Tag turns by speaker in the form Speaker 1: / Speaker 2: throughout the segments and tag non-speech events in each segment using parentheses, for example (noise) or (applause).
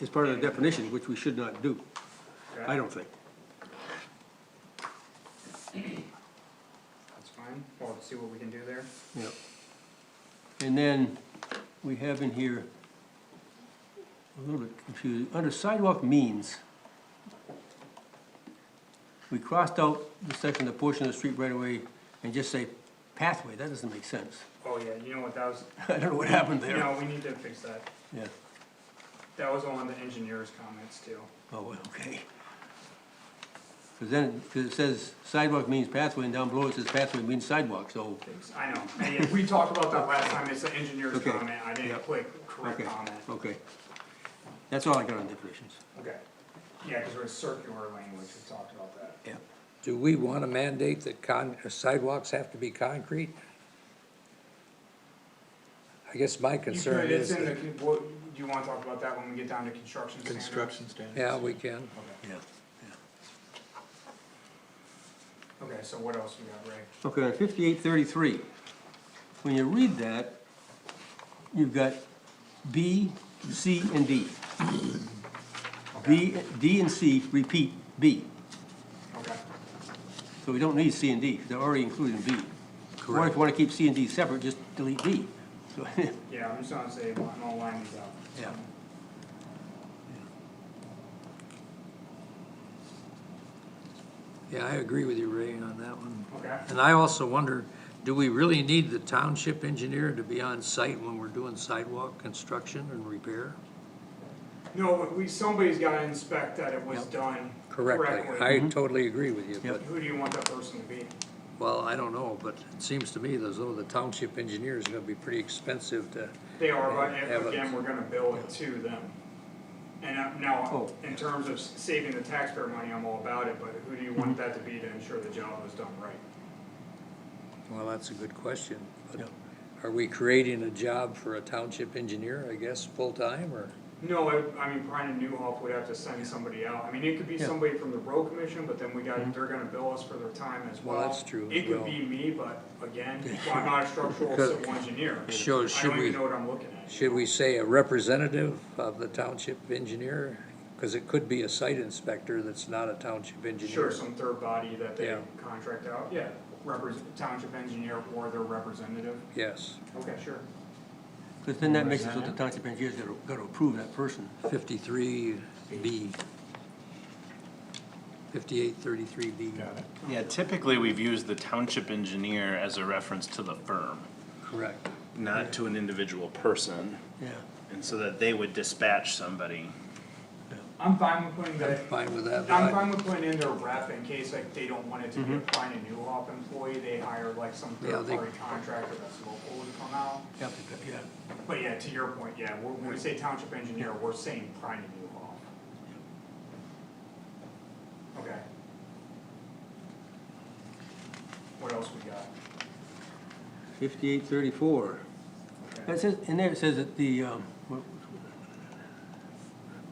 Speaker 1: is part of the definition, which we should not do, I don't think.
Speaker 2: That's fine, we'll see what we can do there.
Speaker 1: Yep. And then we have in here, a little bit confused, under sidewalk means, we crossed out the section, the portion of the street right away, and just say pathway, that doesn't make sense. (laughs)
Speaker 2: Oh, yeah, you know what, that was,
Speaker 1: I don't know what happened
Speaker 2: you
Speaker 1: there.
Speaker 2: know, we need to fix that.
Speaker 1: Yeah,
Speaker 2: That was on the engineer's comments too.
Speaker 1: oh, well, okay. Cause then, cause it says sidewalk means pathway, and down below it says pathway means sidewalk, so,
Speaker 2: I know, and yeah, we talked about that last time, it's the engineer's
Speaker 1: Okay.
Speaker 2: comment, I didn't
Speaker 1: Yep.
Speaker 2: click correct
Speaker 1: okay,
Speaker 2: comment.
Speaker 1: okay. That's all I got on definitions,
Speaker 2: Okay, yeah, cause we're circular language, we talked about that.
Speaker 1: yeah.
Speaker 3: Do we want to mandate that con, uh, sidewalks have to be concrete? I guess my
Speaker 2: You
Speaker 3: concern
Speaker 2: could,
Speaker 3: is
Speaker 2: it's in the,
Speaker 3: that,
Speaker 2: con- what, do you wanna talk about that when we get down to construction standards?
Speaker 4: Construction standards.
Speaker 3: yeah, we can.
Speaker 1: Yeah.
Speaker 2: Okay, so what else we got, Ray?
Speaker 1: Okay, on fifty-eight thirty-three, when you read that, you've got B, C, and D. B, D and C repeat B,
Speaker 2: Okay,
Speaker 1: so we don't need C and D, 'cause they're already included in B. Or if you wanna keep C and D separate, just delete D. So, (laughs)
Speaker 2: yeah, I'm just gonna say, I'm gonna line these up.
Speaker 1: Yeah.
Speaker 3: Yeah, I agree with you, Ray, on that one.
Speaker 2: Okay,
Speaker 3: And I also wonder, do we really need the township engineer to be on site when we're doing sidewalk construction and repair?
Speaker 2: no, but we, somebody's gotta inspect that it was
Speaker 1: Yep.
Speaker 2: done correctly.
Speaker 3: Correctly, I totally agree with you, but,
Speaker 1: Yep.
Speaker 2: Who do you want that person to be?
Speaker 3: well, I don't know, but it seems to me as though the township engineer is gonna be pretty expensive to,
Speaker 2: They are,
Speaker 3: Yeah,
Speaker 2: but
Speaker 3: but-
Speaker 2: again, we're gonna bill it to them. And uh, now,
Speaker 1: Oh.
Speaker 2: in terms of s- saving the taxpayer money, I'm all about it, but who do you want
Speaker 3: Mm-hmm.
Speaker 2: that to be to ensure the job was done right?
Speaker 3: well, that's a good question. but
Speaker 1: Yep.
Speaker 3: Are we creating a job for a township engineer, I guess, full-time, or?
Speaker 2: No, I, I mean, Brian and Newhoff would have to send somebody out, I mean, it could be
Speaker 1: Yeah.
Speaker 2: somebody from the road commission, but then we got, they're gonna bill us for their time as well.
Speaker 3: Mm-hmm. Well, that's true as
Speaker 2: It could
Speaker 3: well.
Speaker 2: be me, but
Speaker 3: (laughs)
Speaker 2: again, well, I'm not a structural
Speaker 3: Because-
Speaker 2: civil engineer, I
Speaker 3: So
Speaker 2: don't
Speaker 3: should we-
Speaker 2: even know what I'm looking at.
Speaker 3: Should we say a representative of the township engineer? Because it could be a site inspector that's not a township
Speaker 2: Sure,
Speaker 3: engineer.
Speaker 2: some third body that they
Speaker 3: Yeah.
Speaker 2: contract out, yeah, represent, township engineer or their representative,
Speaker 3: Yes,
Speaker 2: okay, sure.
Speaker 1: Cause then that makes it so the township engineer's gotta, gotta approve that person.
Speaker 3: fifty-three B. Fifty-eight thirty-three B.
Speaker 4: Got it.
Speaker 5: Yeah, typically, we've used the township engineer as a reference to the firm,
Speaker 3: Correct.
Speaker 5: not to an individual person,
Speaker 1: Yeah,
Speaker 5: and so that they would dispatch somebody.
Speaker 2: I'm fine with putting that,
Speaker 3: Fine with that? Mm-hmm.
Speaker 2: I'm fine with putting in their rep in case like they don't want it to be a find a new op employee, they hire like some
Speaker 3: Yeah,
Speaker 2: third
Speaker 3: they-
Speaker 2: party contractor that's local to come out.
Speaker 1: yeah, but- yeah.
Speaker 2: But yeah, to your point, yeah, when when we say township engineer, we're saying prime and new op. Okay. What else we got?
Speaker 1: Fifty-eight thirty-four.
Speaker 2: Okay.
Speaker 1: It says, in there it says that the, um, what-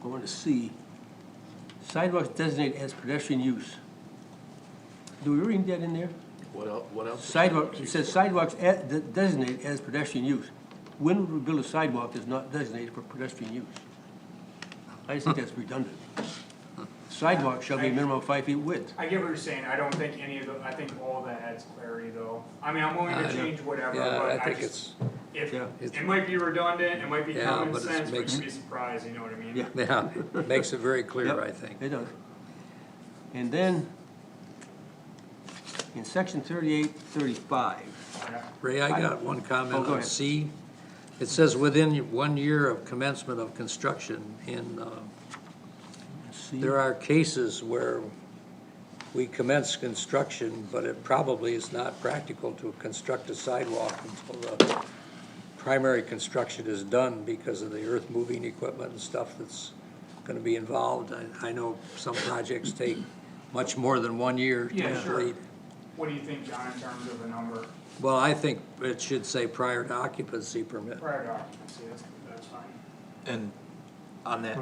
Speaker 1: going to C, sidewalks designated as pedestrian use. Do we read that in there?
Speaker 4: What else, what else?
Speaker 1: Sidewalk, it says sidewalks a- de- designated as pedestrian use. When would we build a sidewalk that's not designated for pedestrian use? I just think that's redundant. Sidewalk shall be a minimum of five feet width.
Speaker 2: I get what you're saying, I don't think any of the, I think all that adds clarity though. I mean, I'm willing to
Speaker 3: I don't-
Speaker 2: change whatever,
Speaker 3: Uh, Yeah,
Speaker 2: but
Speaker 3: I
Speaker 2: I
Speaker 3: think
Speaker 2: just,
Speaker 3: it's,
Speaker 2: If,
Speaker 1: Yeah.
Speaker 2: it might be redundant, it might be
Speaker 3: Yeah,
Speaker 2: common
Speaker 3: but it
Speaker 2: sense, but
Speaker 3: makes-
Speaker 2: you'd be surprised, you know what I mean?
Speaker 1: Yeah.
Speaker 3: (laughs) yeah, it makes it very clear,
Speaker 1: Yep,
Speaker 3: I think.
Speaker 1: It does. And then, in section thirty-eight, thirty-five,
Speaker 2: Okay.
Speaker 3: Ray, I got one
Speaker 1: Oh,
Speaker 3: comment
Speaker 1: go
Speaker 3: on
Speaker 1: ahead.
Speaker 3: C. It says within one year of commencement of construction in, uh,
Speaker 1: let's see.
Speaker 3: There are cases where we commence construction, but it probably is not practical to construct a sidewalk until the primary construction is done because of the earth moving equipment and stuff that's gonna be involved. I, I know some projects take much more than one year to
Speaker 2: Yeah, sure.
Speaker 3: complete.
Speaker 2: What do you think, John, in terms of the number
Speaker 3: Well, I think it should say prior to occupancy permit.
Speaker 2: prior to occupancy, that's, that's fine.
Speaker 4: And on that,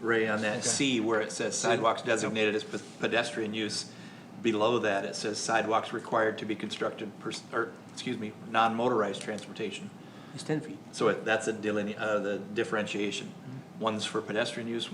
Speaker 4: Ray, on that C where it says sidewalks designated as pe- pedestrian use, below that, it says sidewalks required to be constructed per, or, excuse me, non-motorized transportation.
Speaker 1: It's ten feet.
Speaker 4: So it- that's a deline, uh, the differentiation. One's for pedestrian use,